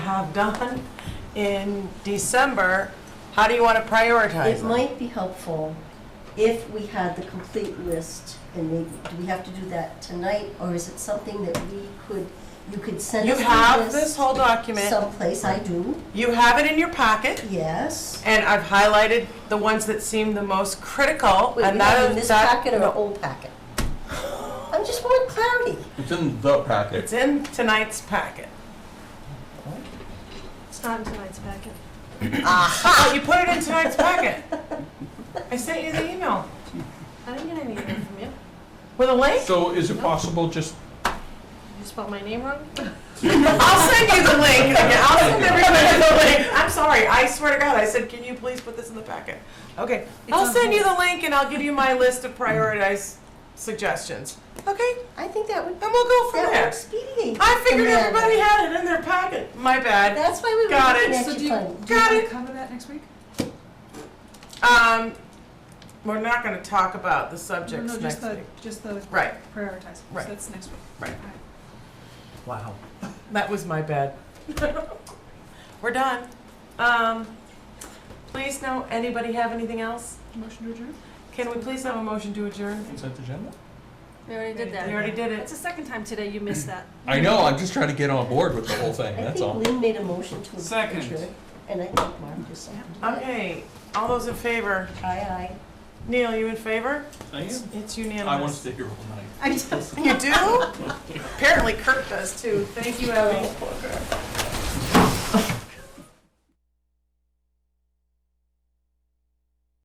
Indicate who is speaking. Speaker 1: have done in December, how do you want to prioritize
Speaker 2: It
Speaker 1: them?
Speaker 2: might be helpful if we had the complete list, and maybe, do we have to do that tonight, or is it something that we could, you could send
Speaker 1: You
Speaker 2: us the
Speaker 1: have
Speaker 2: list
Speaker 1: this whole document,
Speaker 2: Someplace, I do,
Speaker 1: you have it in your pocket,
Speaker 2: yes.
Speaker 1: and I've highlighted the ones that seem the most critical,
Speaker 2: Wait,
Speaker 1: and
Speaker 2: you have
Speaker 1: that
Speaker 2: in this
Speaker 1: is, that,
Speaker 2: packet or an old packet? I am just want clarity.
Speaker 3: It's in the
Speaker 1: it's
Speaker 3: packet.
Speaker 1: in tonight's packet.
Speaker 4: It's not in tonight's packet.
Speaker 1: Oh, you put it in tonight's packet. I sent you the email
Speaker 4: I didn't get any email from you.
Speaker 1: with a link.
Speaker 3: So is it possible just,
Speaker 4: You spelled my name wrong?
Speaker 1: I'll send you the link. again. I'll send everybody the link. I'm sorry. I swear to God, I said, can you please put this in the packet? Okay. I'll
Speaker 2: on
Speaker 1: send you the link and I'll give you my list of prioritized suggestions. Okay?
Speaker 2: I think that would,
Speaker 1: And we'll go from
Speaker 2: that would
Speaker 1: there.
Speaker 2: expedite.
Speaker 1: I figured
Speaker 2: the matter.
Speaker 1: everybody had it in their packet. My bad.
Speaker 2: That's why we were
Speaker 1: Got
Speaker 2: looking
Speaker 1: it.
Speaker 2: at
Speaker 5: So
Speaker 2: you
Speaker 5: do you,
Speaker 2: funny.
Speaker 5: do you want
Speaker 1: Got it.
Speaker 5: to cover that next week?
Speaker 1: Um, we're not going to talk about the
Speaker 5: No,
Speaker 1: subjects
Speaker 5: no,
Speaker 1: next
Speaker 5: just the,
Speaker 1: week.
Speaker 5: just the
Speaker 1: Right.
Speaker 5: prioritizing, so
Speaker 1: Right.
Speaker 5: that's next week.
Speaker 1: Right.
Speaker 5: All
Speaker 1: Wow. That was my bad. We're done. Um, please, no, anybody have anything else?
Speaker 5: Motion to adjourn?
Speaker 1: Can we please have a motion to adjourn?
Speaker 3: consent agenda?
Speaker 4: We already did
Speaker 1: We
Speaker 4: that.
Speaker 1: already did
Speaker 4: That's
Speaker 1: it.
Speaker 4: the second time today you missed that.
Speaker 3: I know, I'm just trying to get on board with the whole thing,
Speaker 2: I
Speaker 3: that's all.
Speaker 2: think Lynn made a motion to adjourn.
Speaker 6: Second.
Speaker 2: And I think Mark just seconded it.
Speaker 1: Okay, all those in favor?
Speaker 2: Aye,
Speaker 1: Neil, you in favor?
Speaker 3: I am.
Speaker 1: It's
Speaker 3: I want to
Speaker 1: unanimous.
Speaker 3: stay here all night.
Speaker 2: aye.
Speaker 1: You do? Apparently Kirk does too. Thank you, Abby.
Speaker 2: Oh, poor girl.